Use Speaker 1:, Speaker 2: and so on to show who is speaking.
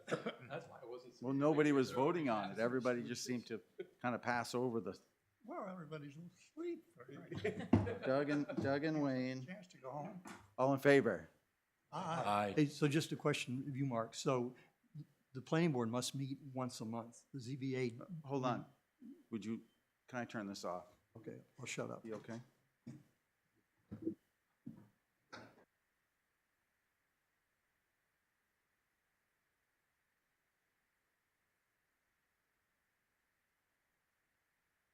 Speaker 1: Well, nobody was voting on it. Everybody just seemed to kind of pass over the,
Speaker 2: Well, everybody's asleep for a
Speaker 1: Doug and, Doug and Wayne,
Speaker 2: chance to go home.
Speaker 1: all in favor?
Speaker 2: Aye.
Speaker 3: Aye.
Speaker 4: Hey, so just a question of you, Mark. So the planning board must meet once a month. The ZBA,
Speaker 1: Hold on. Would you, can I turn this off?
Speaker 4: okay, I'll shut up.
Speaker 1: You okay?